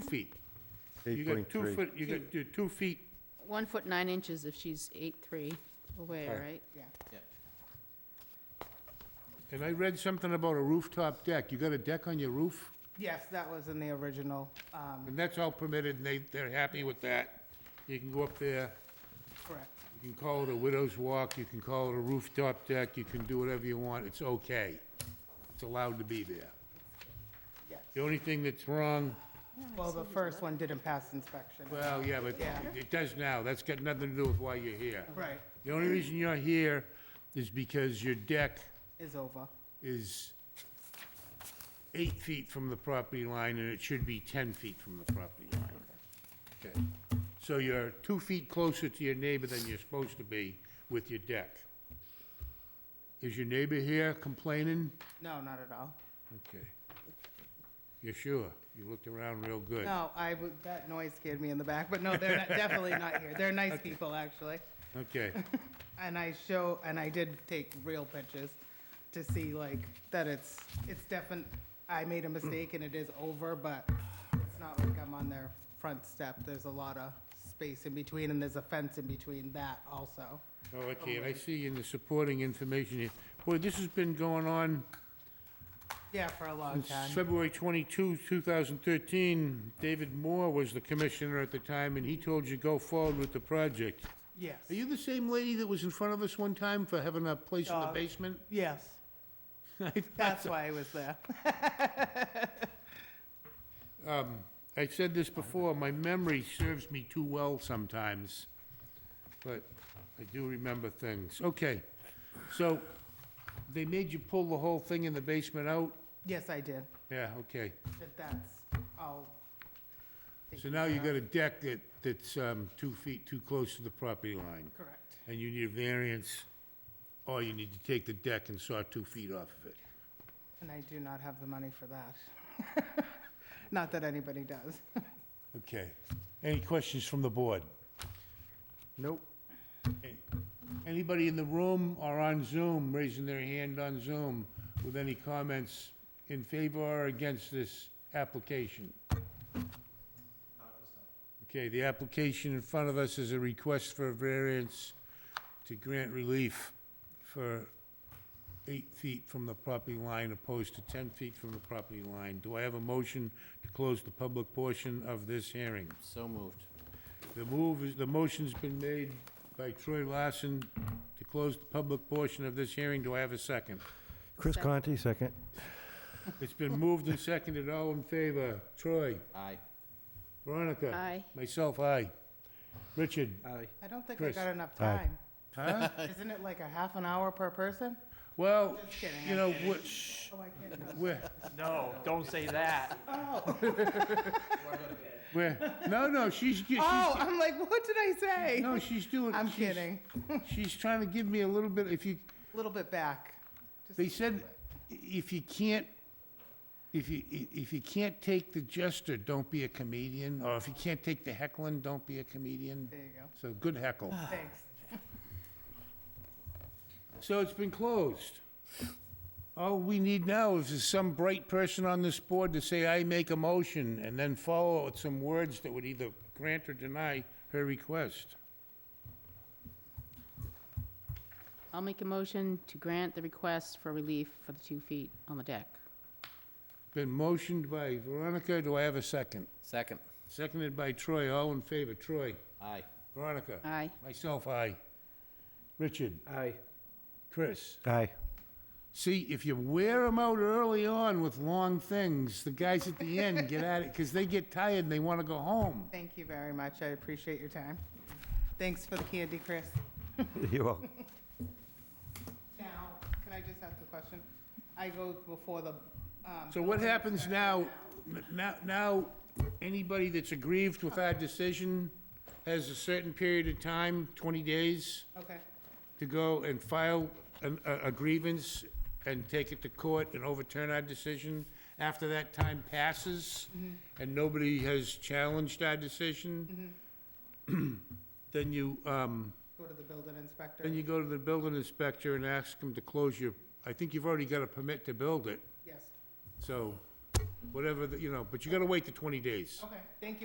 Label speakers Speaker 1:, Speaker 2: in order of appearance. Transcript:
Speaker 1: feet. You
Speaker 2: Eight
Speaker 1: got
Speaker 2: point
Speaker 1: two
Speaker 2: three.
Speaker 1: foot, you got your two feet,
Speaker 3: One foot nine inches if she's eight three away,
Speaker 2: Okay.
Speaker 3: right?
Speaker 4: yeah.
Speaker 1: and I read something about a rooftop deck. You got a deck on your roof?
Speaker 4: Yes, that was in the original, um,
Speaker 1: And that's all permitted, and they, they're happy with that. You can go up there,
Speaker 4: correct.
Speaker 1: you can call it a widow's walk, you can call it a rooftop deck, you can do whatever you want, it's okay. It's allowed to be there.
Speaker 4: Yes.
Speaker 1: The only thing that's wrong,
Speaker 4: Well, the first one didn't pass inspection.
Speaker 1: well, yeah, but
Speaker 4: Yeah.
Speaker 1: it does now, that's got nothing to do with why you're here.
Speaker 4: Right,
Speaker 1: The only reason you're here is because your deck
Speaker 4: is over.
Speaker 1: is eight feet from the property line, and it should be 10 feet from the property line. Okay. So you're two feet closer to your neighbor than you're supposed to be with your deck. Is your neighbor here complaining?
Speaker 4: No, not at all.
Speaker 1: Okay. You're sure? You looked around real good.
Speaker 4: No, I, w- that noise scared me in the back, but no, they're not- definitely not here. They're nice people, actually.
Speaker 1: Okay.
Speaker 4: And I show, and I did take real pictures to see like that it's, it's definite, I made a mistake and it is over, but it's not like I'm on their front step. There's a lot of space in between and there's a fence in between that also.
Speaker 1: Oh, okay, and I see in the supporting information here, boy, this has been going on
Speaker 4: Yeah, for a long
Speaker 1: Since
Speaker 4: time.
Speaker 1: February 22, 2013, David Moore was the commissioner at the time, and he told you go forward with the project.
Speaker 4: Yes,
Speaker 1: Are you the same lady that was in front of us one time for having a place in the
Speaker 4: Uh,
Speaker 1: basement?
Speaker 4: yes. That's why I was there.
Speaker 1: Um, I said this before, my memory serves me too well sometimes, but I do remember things. Okay, so they made you pull the whole thing in the basement out?
Speaker 4: Yes, I did.
Speaker 1: Yeah, okay.
Speaker 4: But that's all.
Speaker 1: So now you
Speaker 4: taken care
Speaker 1: got
Speaker 4: of.
Speaker 1: a deck that, that's um, two feet too close to the property line.
Speaker 4: Correct.
Speaker 1: and you need a variance, or you need to take the deck and saw two feet off of it.
Speaker 4: And I do not have the money for that. Not that anybody does.
Speaker 1: Okay. Any questions from the board? Nope. Anybody in the room or on Zoom, raising their hand on Zoom, with any comments in favor or against this application? Okay, the application in front of us is a request for a variance to grant relief for eight feet from the property line opposed to 10 feet from the property line. Do I have a motion to close the public portion of this hearing?
Speaker 5: So moved.
Speaker 1: The move is, the motion's been made by Troy Larson to close the public portion of this hearing. Do I have a second?
Speaker 2: Chris Conti, second.
Speaker 1: It's been moved and seconded. All in favor? Troy?
Speaker 5: Aye.
Speaker 1: Veronica?
Speaker 3: Aye.
Speaker 1: Myself, aye. Richard?
Speaker 5: Aye.
Speaker 4: I don't think I
Speaker 1: Chris.
Speaker 4: got enough
Speaker 2: Aye.
Speaker 4: time.
Speaker 1: Huh?
Speaker 4: Isn't it like a half an hour per person?
Speaker 1: Well,
Speaker 4: Just kidding, Oh,
Speaker 1: you
Speaker 4: I'm
Speaker 1: know, we're, we're,
Speaker 6: No, don't say that.
Speaker 4: Oh.
Speaker 1: we're, no, no, she's, she's,
Speaker 4: Oh, I'm like, what did I say?
Speaker 1: no, she's doing.
Speaker 4: I'm
Speaker 1: she's-
Speaker 4: kidding.
Speaker 1: She's trying to give me a little bit, if you,
Speaker 4: A little bit back. Just
Speaker 1: They said, i- if you can't, if you, i- if you can't take the jester, don't be a comedian, or if you can't take the heckling, don't be a comedian.
Speaker 4: There you go.
Speaker 1: So, good heckle.
Speaker 4: Thanks.
Speaker 1: So it's been closed. All we need now is some bright person on this board to say, I make a motion, and then follow it with some words that would either grant or deny her request.
Speaker 3: I'll make a motion to grant the request for relief for the two feet on the deck.
Speaker 1: Been motioned by Veronica, do I have a second?
Speaker 5: Second.
Speaker 1: Seconded by Troy, all in favor, Troy,
Speaker 5: Aye.
Speaker 1: Veronica.
Speaker 3: Aye.
Speaker 1: Myself, aye. Richard?
Speaker 6: Aye.
Speaker 1: Chris?
Speaker 2: Aye.
Speaker 1: See, if you wear them out early on with long things, the guys at the end get at it because they get tired and they want to go home.
Speaker 4: Thank you very much. I appreciate your time. Thanks for the candy, Chris.
Speaker 2: You're welcome.
Speaker 4: Now, can I just ask a question? I go before the, um.
Speaker 1: So what
Speaker 4: building
Speaker 1: happens
Speaker 4: inspector
Speaker 1: now, now, now, anybody that's aggrieved with our decision has a certain period of time, 20 days,
Speaker 4: Okay,
Speaker 1: to go and file an- a a grievance and take it to court and overturn our decision. After that time passes and nobody has challenged our decision, then you, um,
Speaker 4: go to the building inspector.
Speaker 1: Then you go to the building inspector and ask him to close your, I think you've already got a permit to build it,
Speaker 4: Yes.
Speaker 1: so whatever, the- you know, but you gotta wait the twenty days.
Speaker 4: Okay, thank you.